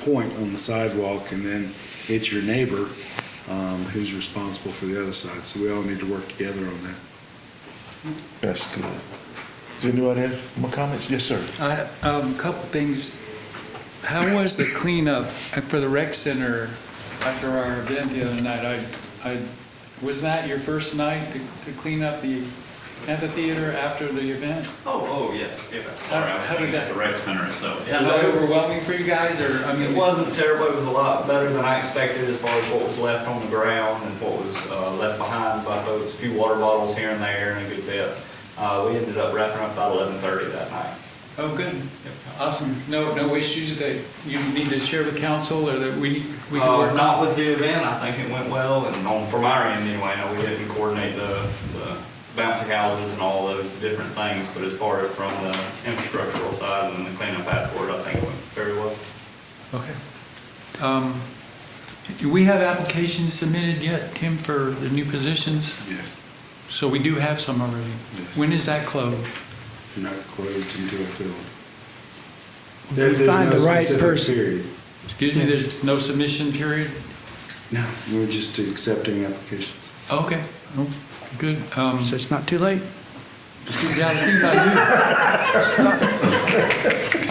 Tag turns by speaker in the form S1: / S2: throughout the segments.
S1: point on the sidewalk, and then it's your neighbor um, who's responsible for the other side. So we all need to work together on that.
S2: That's good. Does anyone have more comments? Yes, sir.
S3: I, um, couple things. How was the cleanup for the rec center after our event the other night? I, I, was that your first night to, to clean up the amphitheater after the event?
S4: Oh, oh, yes. Yeah, Sorry, I was
S3: How did
S4: thinking
S3: that-
S4: at the rec center itself. Yeah,
S3: Was
S4: no,
S3: that
S4: it was-
S3: overwhelming for you guys, or, I mean?
S4: It wasn't terrible, it was a lot better than I expected as far as what was left on the ground and what was uh, left behind by folks, a few water bottles here and there and a good bit. Uh, We ended up wrapping up about 11:30 that night.
S3: Oh, good. Awesome. No, no issues that you need to share with council, or that we, we can
S4: Uh,
S3: work on?
S4: Not with the event, I think it went well, and on, from our end anyway, I know we didn't coordinate the the bouncy houses and all those different things, but as far as from the infrastructural side and the cleanup afterward, I think it went very well.
S3: Okay. Um, Do we have applications submitted yet, Tim, for the new positions?
S1: Yes.
S3: So we do have some already.
S1: Yes.
S3: When is that closed?
S1: Not closed until filled. There-
S5: We
S1: there's
S5: find
S1: no
S5: the right
S1: specific
S5: person.
S1: Period.
S3: Excuse me, there's no submission period?
S1: No, we're just accepting applications.
S3: Okay, Oh, good. Um,
S5: So it's not too late?
S3: yeah, I think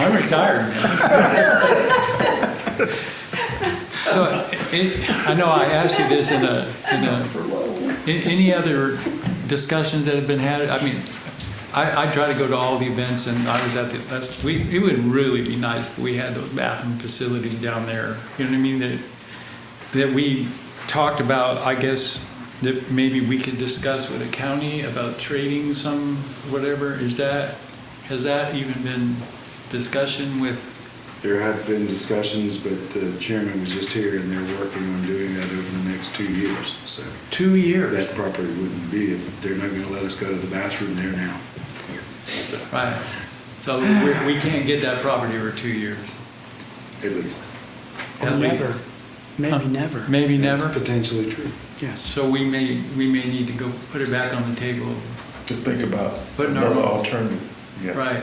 S3: I do. I'm retired. now. So, it- I know I asked you this in a, in a, a- any other discussions that have been had? I mean, I, I try to go to all the events and I was at the, that's, we, it would really be nice if we had those bathroom facilities down there. You know what I mean? That, that we talked about, I guess, that maybe we could discuss with the county about trading some, whatever, is that, has that even been discussion with,
S1: There have been discussions, but the chairman was just here, and they're working on doing that over the next two years. So
S3: two years?
S1: that property wouldn't be, they're not going to let us go to the bathroom there now.
S3: Right, so we, we can't get that property for two years.
S1: At least.
S5: Or
S3: At least.
S5: never?
S3: Huh.
S5: Maybe never.
S3: Maybe
S1: That's
S3: never,
S1: potentially true.
S5: Yes.
S3: so we may, we may need to go put it back on the table,
S2: To think about
S3: But no.
S2: another alternative. Yeah.
S3: right?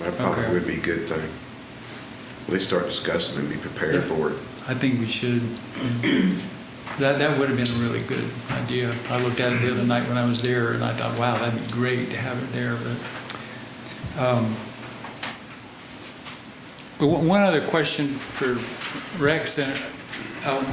S6: That
S3: Okay.
S6: probably would be a good thing. At least start discussing and be prepared
S3: Yeah.
S6: for it.
S3: I think we should. That, that would have been a really good idea. I looked at it the other night when I was there, and I thought, wow, that'd be great to have it there, but, um, but one one other question for Rex, Center. Um,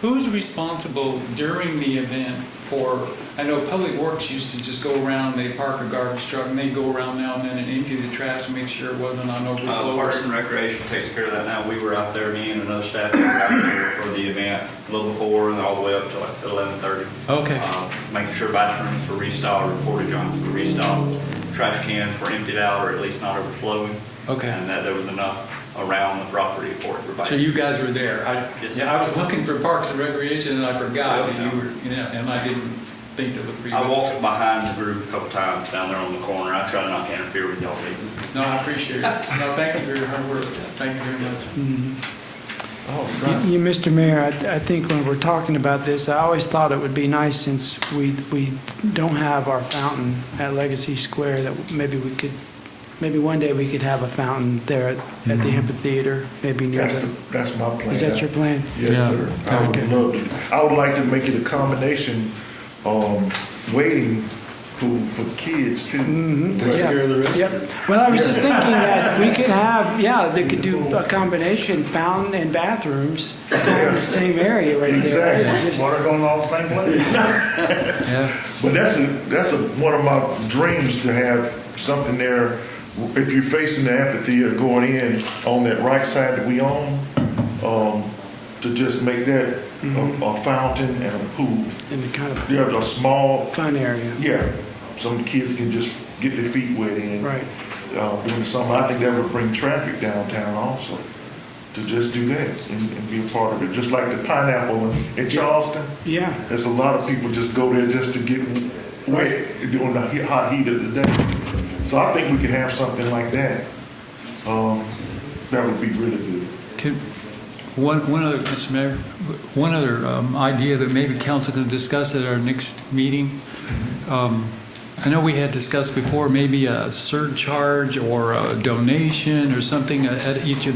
S3: who's responsible during the event for, I know Public Works used to just go around, they park a garbage truck, and they go around now and then and empty the trash and make sure it wasn't on
S4: Uh,
S3: overflow. or
S4: Parks and Recreation takes care of that now. We were out there, me and another staff member out there for the event, a little before and all the way up to like I said, eleven thirty. Uh,
S3: Okay.
S4: Making sure bathrooms were restyled, or porta johns were restyled, trash cans were emptied out or at least not overflowing.
S3: Okay.
S4: And that there was enough around the property for everybody.
S3: So you guys were there? I-
S4: Yes.
S3: Yeah, I was looking for Parks and Recreation, and I forgot
S4: Yeah.
S3: that you were, you know, and I didn't think to look for you.
S4: I walked behind the group a couple times down there on the corner. I try not to interfere with y'all meeting.
S3: No, I appreciate it. No, thank you for your hard work. Thank you very much.
S2: Oh,
S5: You, you, Mr. Mayor, I, I think when we're talking about this, I always thought it would be nice since we, we don't have our fountain at Legacy Square, that maybe we could, maybe one day we could have a fountain there at, at the amphitheater, maybe near
S2: That's, the,
S5: the,
S2: that's my plan.
S5: is that your plan?
S2: Yes,
S3: Yeah.
S2: sir. I would love to, I would like to make it a combination, um, waiting for, for kids too.
S1: Takes
S5: Mm-hmm. Yeah.
S1: care of the rest.
S5: Yep. Well, I was just thinking that we could have, yeah, they could do a combination fountain and bathrooms in the same area right there.
S2: Exactly.
S5: Just-
S7: Water going all the same place?
S3: Yeah.
S2: But that's a, that's a, one of my dreams to have something there. If you're facing the amphitheater going in on that right side that we own, um, to just make that a, a fountain and a pool.
S5: In the kind of
S2: You have a small,
S5: fun area.
S2: yeah, some kids can just get their feet wet in.
S5: Right.
S2: Uh, doing something, I think that would bring traffic downtown also, to just do that and, and be a part of it. Just like the pineapple in- in Charleston.
S5: Yeah.
S2: There's a lot of people just go there just to get wet during the he- hot heat of the day. So I think we could have something like that. Um, that would be really good.
S3: Can- One, one other, Mr. Mayor, one other um, idea that maybe council can discuss at our next meeting. Um, I know we had discussed before, maybe a surcharge or a donation or something at at each event